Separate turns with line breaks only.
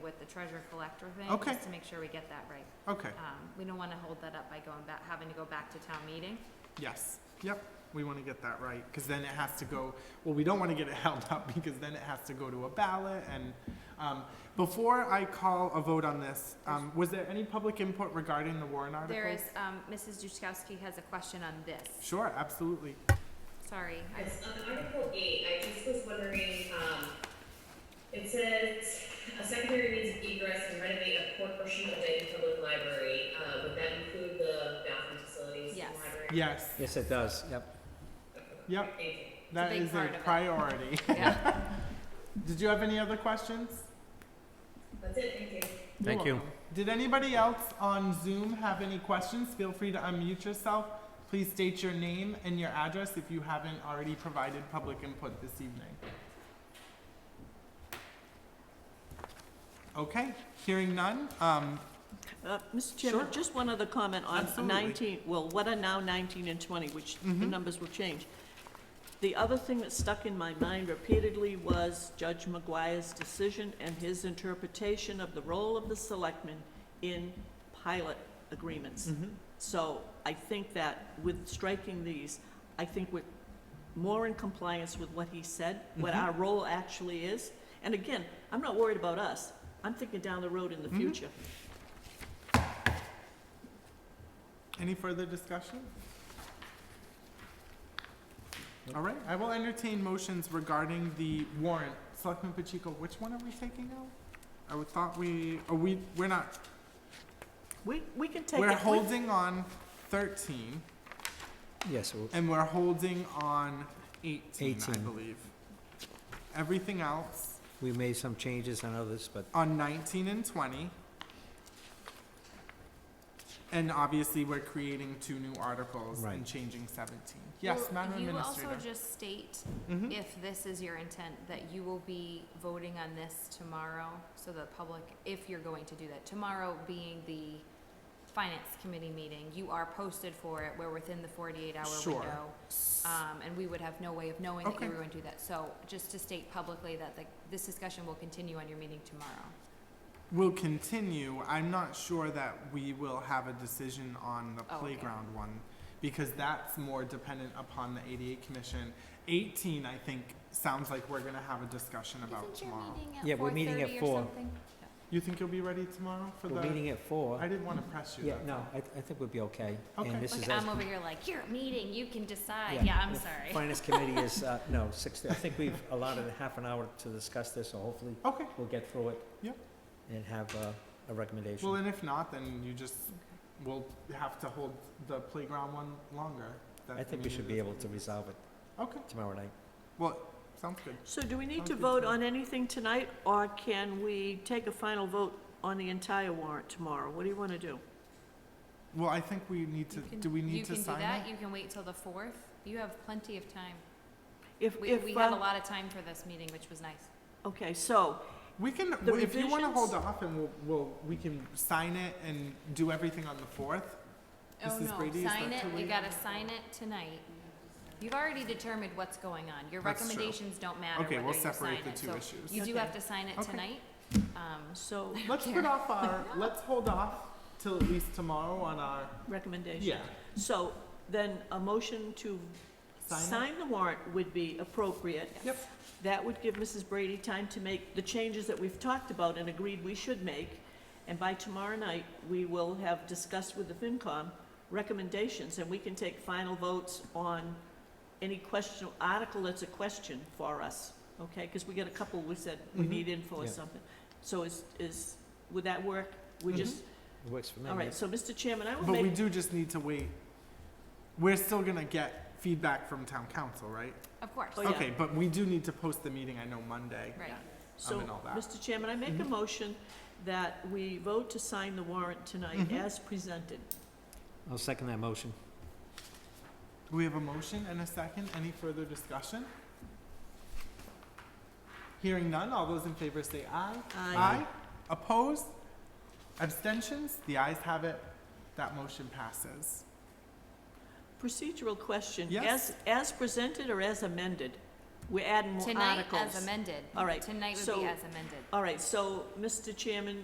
with the treasure collector thing,
Okay.
just to make sure we get that right.
Okay,
Um, we don't wanna hold that up by going back, having to go back to town meeting.
yes, yep, we want to get that right, because then it has to go, well, we don't want to get it held up, because then it has to go to a ballot, and, um, before I call a vote on this, um, was there any public input regarding the Warren article?
There is, um, Mrs. Duskowski has a question on this.
Sure, absolutely.
Sorry, I
Yes, on Article eight, I just was wondering, um, it says, a secondary means of egress and renovate a portion of the public library, uh, would that include the bathroom facilities in
Yes.
the library?
Yes,
Yes, it does, yep.
yep,
Thank you.
that
big
is
part
a
of it.
priority.
Yeah.
Did you have any other questions?
That's it, thank you.
You're
Thank you.
welcome. Did anybody else on Zoom have any questions? Feel free to unmute yourself. Please state your name and your address if you haven't already provided public input this evening. Okay, hearing none, um,
Uh, Mr. Chairman,
Sure.
just one other comment on
Absolutely.
19, well, what are now 19 and 20, which the
Mhm.
numbers will change. The other thing that stuck in my mind repeatedly was Judge McGuire's decision and his interpretation of the role of the selectmen in pilot
Mm.
agreements.
Mm-hmm.
So I think that with striking these, I think we're more in compliance with what he said, what
Mhm.
our role actually is. And again, I'm not worried about us. I'm thinking down the road in the
Mhm.
future.
any further discussion? All right, I will entertain motions regarding the warrant. Selectman Pacheco, which one are we taking out? I would thought we, are we, we're not
We, we can take it.
We're
we-
holding on 13,
Yes, well,
and we're holding on 18, I
18.
believe. Everything else
we made some changes on others, but
on 19 and 20. And obviously, we're creating two new articles and
Right.
changing 17. Yes,
Well,
Madam
You
Administrator.
also just state,
Mhm.
if this is your intent, that you will be voting on this tomorrow, so the public, if you're going to do that, tomorrow being the finance committee meeting, you are posted for it, we're within the forty-eight hour
Sure.
window. Um, and we would have no way of knowing that
Okay.
you were going to do that, so just to state publicly that the, this discussion will continue on your meeting tomorrow.
We'll continue. I'm not sure that we will have a decision on the
Oh, okay.
playground one because that's more dependent upon the 88 Commission. 18, I think, sounds like we're going to have a discussion about tomorrow.
Yeah, we're meeting at four.
You think you'll be ready tomorrow for
we're
the?
meeting at
I
four.
didn't want to press you.
Yeah,
that's
no,
all.
I, th- I think we'll be okay.
Okay.
And this is
Like,
as
I'm over here like, you're meeting, you can decide,
Yeah.
yeah, I'm
Yeah.
sorry.
Finance committee is, uh, no, six, I think we've allotted a half an hour to discuss this, so hopefully
Okay.
we'll get through it.
Yep.
And have uh, a
Well,
recommendation.
and if not, then you just
Okay.
will have to hold the playground one longer. That
I think we
meeting
should
is-
be able to resolve it
Okay.
tomorrow night.
Well, sounds good.
So do we need to
Okay,
vote
so-
on anything tonight, or can we take a final vote on the entire warrant tomorrow? What do you want to do?
Well, I think we need to.
You can-
do we need to sign
You can do
it?
that, you can wait till the fourth, you have plenty of time.
If,
We,
if,
we had a
uh,
lot of time for this meeting, which was nice.
okay, so,
We can.
The
if you want to hold
revisions?
off, and we'll, we'll we can sign it and do everything on the fourth.
Oh,
Mrs.
no,
Brady, is
sign
that
it,
too
eh?
you
late?
gotta sign it tonight. You've already determined what's going on, your
That's true.
recommendations don't matter
Okay,
whether
we'll
you sign
separate the
it,
two
so
issues.
you do
Okay.
have to sign it
Okay.
tonight. Um,
so,
Let's put
care.
off our. Let's hold off till at least tomorrow on our.
recommendation.
Yeah.
So, then a motion to
Sign it?
sign the warrant would be appropriate.
Yep.
That would give Mrs. Brady time to make the changes that we've talked about and agreed we should make. And by tomorrow night, we will have discussed with the FinCom recommendations, and we can take final votes on any question, article that's a question for us, okay? Because we got a couple, we said we
Mhm.
need info or
Yeah.
something. So is, is, would that work? We
Mhm.
just,
It works for me.
all right,
yes.
so Mr. Chairman, I will
But we
make,
do just need to wait. We're still gonna get feedback from town council, right?
Of course,
Oh, yeah.
Okay, but we do need to post the meeting, I know, Monday.
right,
so,
in all that.
Mr. Chairman, I make a
Mhm.
motion that we vote to sign the warrant tonight
Mhm.
as presented.
I'll second that motion.
Do we have a motion and a second? Any further discussion? Hearing none, all those in favor say aye.
Aye.
Opposed? Abstentions? The ayes have it. That motion passes.
Procedural question.
Yes.
As, as presented or as amended? We're adding more
Tonight
articles.
as amended.
All right,
Tonight would
so-
be as amended.
All right, so, Mr. Chairman,